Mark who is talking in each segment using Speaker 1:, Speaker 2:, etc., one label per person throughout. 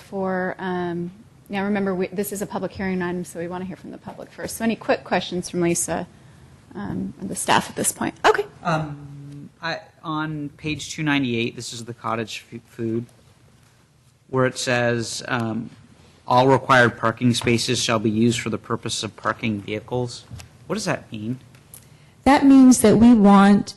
Speaker 1: Before, um, now remember, we, this is a public hearing item, so we want to hear from the public first. So any quick questions from Lisa, um, and the staff at this point? Okay.
Speaker 2: I, on page 298, this is the cottage fu- food, where it says, um, "All required parking spaces shall be used for the purpose of parking vehicles." What does that mean?
Speaker 3: That means that we want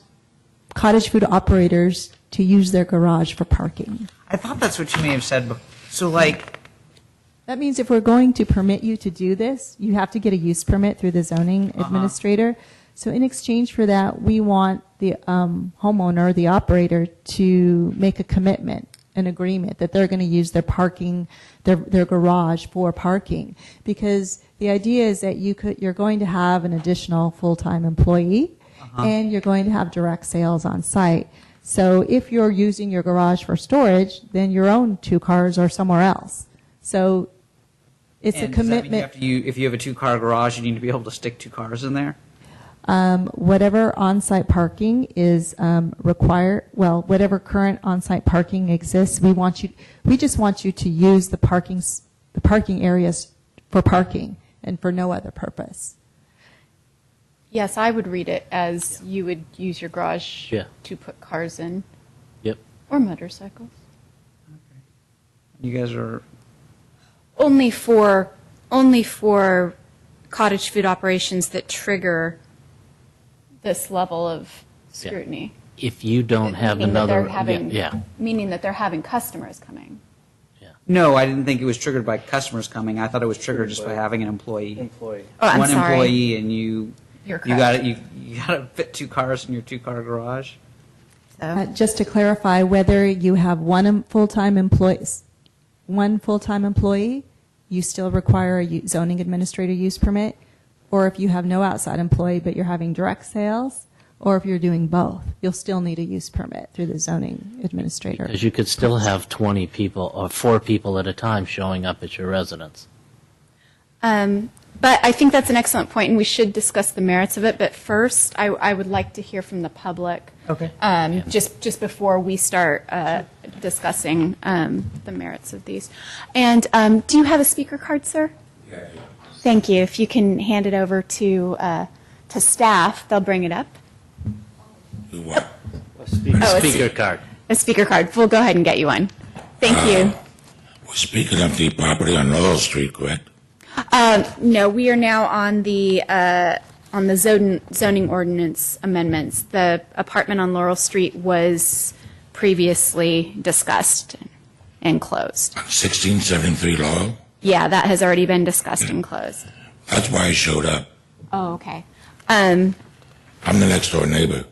Speaker 3: cottage food operators to use their garage for parking.
Speaker 2: I thought that's what you may have said. bef- So like,
Speaker 3: That means if we're going to permit you to do this, you have to get a use permit through the zoning administrator. So in exchange for that, we want the um, homeowner, the operator, to make a commitment, an agreement that they're going to use their parking, their, their garage for parking. Because the idea is that you could, you're going to have an additional full-time employee, and you're going to have direct sales on site. So if you're using your garage for storage, then your own two cars are somewhere else. So it's a
Speaker 2: and does that mean you
Speaker 3: commitment,
Speaker 2: have to- you- If you have a two-car garage, you need to be able to stick two cars in there?
Speaker 3: um, whatever on-site parking is um, required, well, whatever current on-site parking exists, we want you, we just want you to use the parking, s- the parking areas for parking and for no other purpose.
Speaker 1: Yes, I would read it as you would use your garage
Speaker 4: Yeah.
Speaker 1: to put cars in.
Speaker 4: Yep.
Speaker 1: Or motorcycles.
Speaker 2: You guys are,
Speaker 5: only for only for cottage food operations that trigger
Speaker 1: This level of scrutiny.
Speaker 4: If you don't have
Speaker 1: Meaning that they're
Speaker 4: another,
Speaker 1: having-
Speaker 4: yeah,
Speaker 1: Meaning that they're having customers coming.
Speaker 2: no, I didn't think it was triggered by customers coming. I thought it was triggered just by having an employee.
Speaker 4: employee.
Speaker 1: Oh, I'm
Speaker 2: One
Speaker 1: sorry.
Speaker 2: employee and you, you
Speaker 1: You're
Speaker 2: got it, you, you got to fit two cars in your two-car garage?
Speaker 3: Uh, Just to clarify, whether you have one em- full-time employees, one full-time employee, you still require a u- zoning administrator use permit, or if you have no outside employee but you're having direct sales, or if you're doing both, you'll still need a use permit through the zoning administrator.
Speaker 4: Because you could still have 20 people or four people at a time showing up at your residence.
Speaker 1: Um, but I think that's an excellent point, and we should discuss the merits of it. But first, I, I would like to hear from the public.
Speaker 2: Okay.
Speaker 1: Um, Just just before we start uh, discussing um, the merits of these, and um, do you have a speaker card, sir? Thank you. If you can hand it over to uh, to staff, they'll bring it up.
Speaker 6: Who won?
Speaker 1: Oh, a,
Speaker 4: Speaker card.
Speaker 1: a speaker card. We'll go ahead and get you one. Thank you.
Speaker 6: We're speaking of the property on Laurel Street, correct?
Speaker 1: Um, no, we are now on the, uh, on the zoning, zoning ordinance amendments. The apartment on Laurel Street was previously discussed and closed.
Speaker 6: 1673 Laurel?
Speaker 1: Yeah, that has already been discussed and closed.
Speaker 6: That's why I showed up.
Speaker 1: Oh, okay. Um,
Speaker 6: I'm the next door neighbor.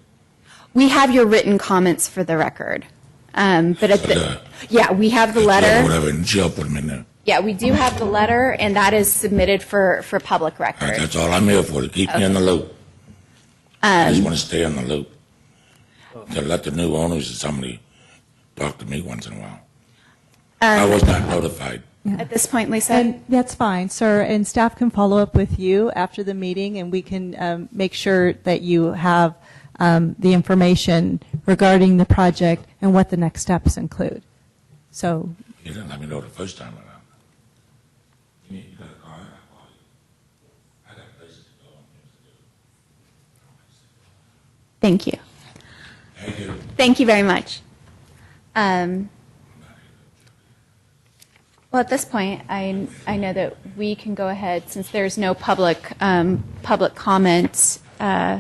Speaker 1: we have your written comments for the record. Um, but at the,
Speaker 6: Okay.
Speaker 1: yeah, we have the
Speaker 6: Yeah,
Speaker 1: letter.
Speaker 6: Whatever, and jail put him in there.
Speaker 1: Yeah, we do have the letter, and that is submitted for, for public
Speaker 6: All right,
Speaker 1: record.
Speaker 6: that's all I'm here for, to keep me in the loop. I just want to stay in the loop. To let the new owners or somebody talk to me once in a while. I was not notified.
Speaker 1: At this point, Lisa?
Speaker 3: And that's fine, sir, and staff can follow up with you after the meeting, and we can um, make sure that you have um, the information regarding the project and what the next steps include. So
Speaker 6: You didn't let me know the first time around. You need- you got a car? I'll call you. I got places to go and things
Speaker 1: Thank
Speaker 6: to do.
Speaker 1: you.
Speaker 6: Thank you.
Speaker 1: Thank you very much. Um, Well, at this point, I, I know that we can go ahead, since there's no public, um, public comment uh,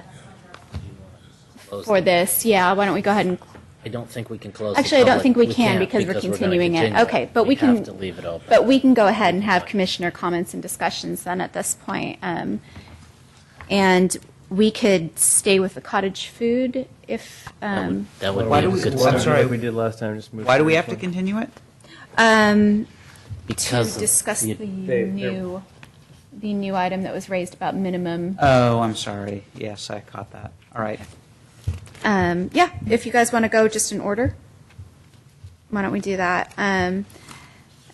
Speaker 1: for this. Yeah, why don't we go ahead and,
Speaker 4: I don't think we can close. the
Speaker 1: actually, I don't
Speaker 4: public-
Speaker 1: think we can
Speaker 4: can't
Speaker 1: because we're
Speaker 4: gonna
Speaker 1: continuing it.
Speaker 4: continue
Speaker 1: Okay, but we can.
Speaker 4: have to leave it open.
Speaker 1: But we can go ahead and have commissioner comments and discussions then at this point. Um, And we could stay with the cottage food if,
Speaker 4: That
Speaker 1: um,
Speaker 4: would- That would
Speaker 2: Why
Speaker 4: be a
Speaker 2: do we-
Speaker 4: good
Speaker 2: why- I'm
Speaker 4: start.
Speaker 2: sorry.
Speaker 7: Like we did last time, just move.
Speaker 2: Why do
Speaker 7: to
Speaker 2: we
Speaker 7: the
Speaker 2: have to
Speaker 7: next one.
Speaker 2: continue it?
Speaker 1: um, to
Speaker 4: Because of
Speaker 1: discuss
Speaker 4: the-
Speaker 1: the new, the new item that was raised about minimum.
Speaker 2: Oh, I'm sorry. Yes, I caught that. All right.
Speaker 1: Um, yeah, if you guys want to go just in order, why don't we do that? Um,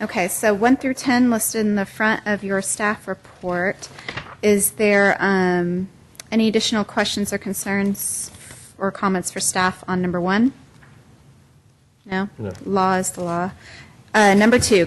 Speaker 1: okay, so one through 10 listed in the front of your staff report. Is there, um, any additional questions or concerns or comments for staff on number one? No?
Speaker 7: No.
Speaker 1: Law is the law. Uh, number two,